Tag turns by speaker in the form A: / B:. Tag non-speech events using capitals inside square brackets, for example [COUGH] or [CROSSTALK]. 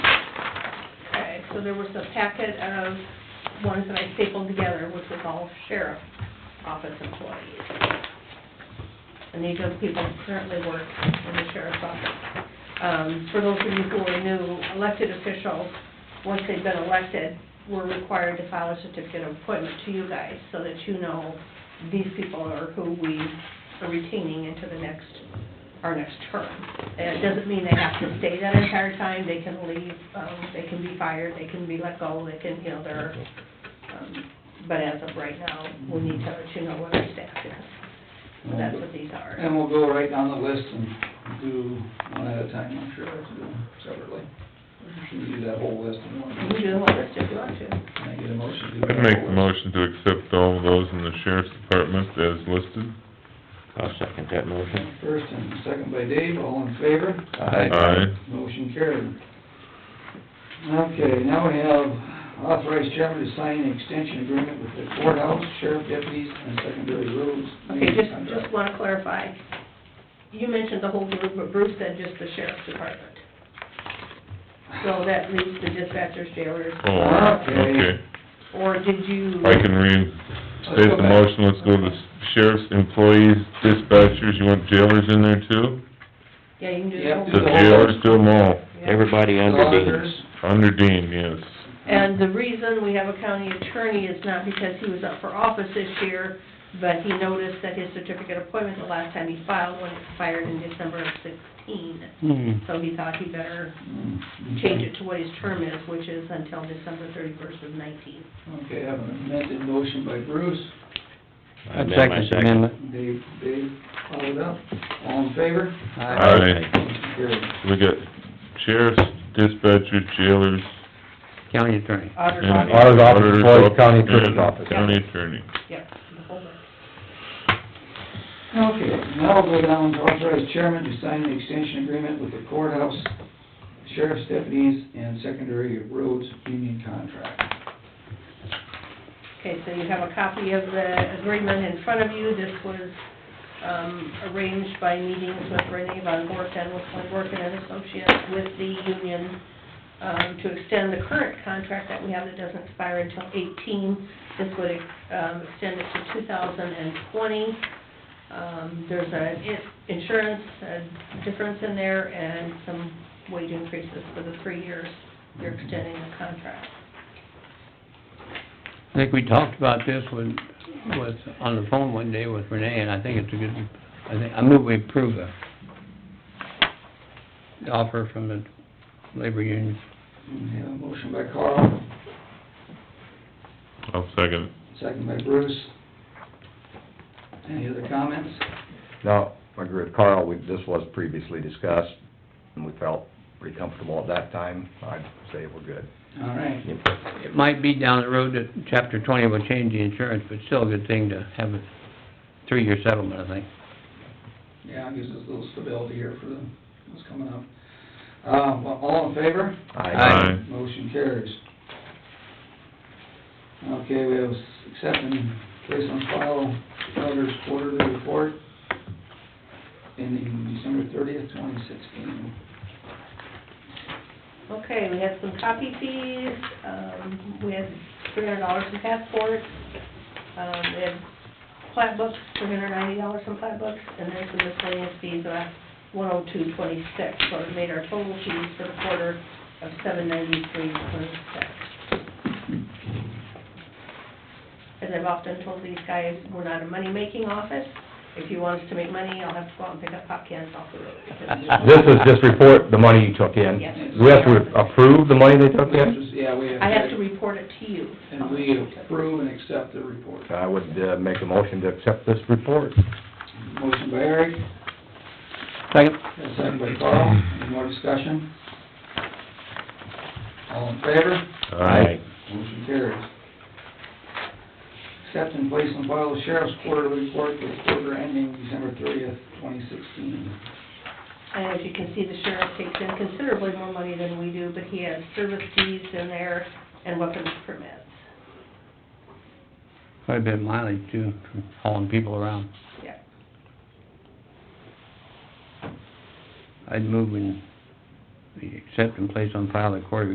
A: So there was a packet of ones that I stapled together, which was all sheriff office employees. And these are the people who currently work in the sheriff's office. Um, for those of you who are new, elected officials, once they've been elected, we're required to file a certificate of appointment to you guys so that you know these people are who we are retaining into the next, our next term. And it doesn't mean they have to stay that entire time, they can leave, um, they can be fired, they can be let go, they can, you know, they're, um, but as of right now, we need to let you know what our staff is. So That's what these are.
B: And we'll go right down the list and do one at a time, I'm sure we'll do them separately. Should we do that whole list in one?
A: You can do the whole list if you want to.
B: Can I get a motion to do that?
C: I'd make
B: whole
C: the
B: list?
C: motion to accept all of those in the sheriff's department as listed.
D: I'll second that motion.
B: First and second by Dave, all in favor?
C: Aye.
B: Motion carried. Okay, now we have authorized chairman to sign an extension agreement with the courthouse, sheriff deputies, and secondary roads.
A: Okay, just, just wanna clarify, you mentioned the whole group, but Bruce said just the sheriff's department. So that leaves the dispatchers, jailers,
C: Oh,
B: Okay.
C: okay.
A: or did you?
C: I can reinstate the motion, let's go to the sheriff's employees, dispatchers, you want jailers in there too?
A: Yeah, you can do
B: Yeah,
A: the whole.
C: The jailers, do them all,
A: Yeah.
D: Everybody under
B: Auditors.
D: Dean.
C: under Dean, yes.
A: And the reason we have a county attorney is not because he was up for office this year, but he noticed that his certificate of appointment, the last time he filed one, expired in December of sixteen.
E: Hmm.
A: So he thought he better
B: Hmm, okay.
A: change it to what his term is, which is until December thirty-first of nineteen.
B: Okay, I have an amended motion by Bruce,
D: I'd second the amendment.
B: Dave, Dave, followed up, all in favor?
C: Aye.
B: Motion carried.
C: We got sheriffs, dispatchers, jailers,
D: County attorney.
A: Auditor,
C: and...
A: auditor,
F: Auditor's office, Floyd County
C: and
F: Attorney's office.
C: County attorney.
A: yeah, the whole bit.
B: Okay, now we'll go down to authorize chairman to sign an extension agreement with the courthouse, sheriff's deputies, and secondary roads union contract.
A: Okay, so you have a copy of the agreement in front of you. This was um, arranged by meetings with Renee von Bork and with Von Bork and Associates with the union um, to extend the current contract that we have that doesn't expire until 18. This would um, extend it to 2020. Um, There's an in- insurance uh, difference in there and some wage increases for the three years you're extending the contract.
E: I think we talked about this when, was on the phone one day with Renee, and I think it's a good, I think, I move we approve the the offer from the labor union.
B: We have a motion by Carl,
C: I'll second it.
B: second by Bruce. Any other comments?
F: Now, I agree with Carl, we, this was previously discussed, and we felt pretty comfortable at that time, I'd say we're good.
B: All right,
E: It might be down the road that chapter twenty will change the insurance, but still a good thing to have a three-year settlement, I think.
B: yeah, gives us a little stability here for the, what's coming up. Uh, well, all in favor?
E: Aye.
B: Motion carries. Okay, we have accept and place on file auditor's quarterly report ending December thirtieth, twenty sixteen.
A: Okay, we had some copy fees, um, we had three hundred dollars in passports, um, we had plat books, three hundred ninety dollars in plat books, and then some miscellaneous fees, uh, one oh two twenty-six, so it made our total fees for the quarter of seven ninety-three twenty-six. As I've often told these guys, we're not a money-making office, if you want us to make money, I'll have to go out and pick up pop cans off the road.
F: [LAUGHS] This is just report the money you took in.
A: Yes.
F: Do we have to approve the money they took
B: We have to,
F: in?
B: yeah, we have.
A: I have to report it to you.
B: And we approve and accept the report.
F: I would, uh, make a motion to accept this report.
B: Motion by Eric,
E: Second?
B: and second by Carl. Any more discussion? All in favor?
C: Aye.
B: Motion carries. Accept and place on file the sheriff's quarterly report for the quarter ending December thirtieth, twenty sixteen.
A: And as you can see, the sheriff takes in considerably more money than we do, but he has service fees in there and weapons permits.
E: Quite a bit of mileage too, from hauling people around.
A: Yeah.
E: I'd move and we accept and place on file the quarterly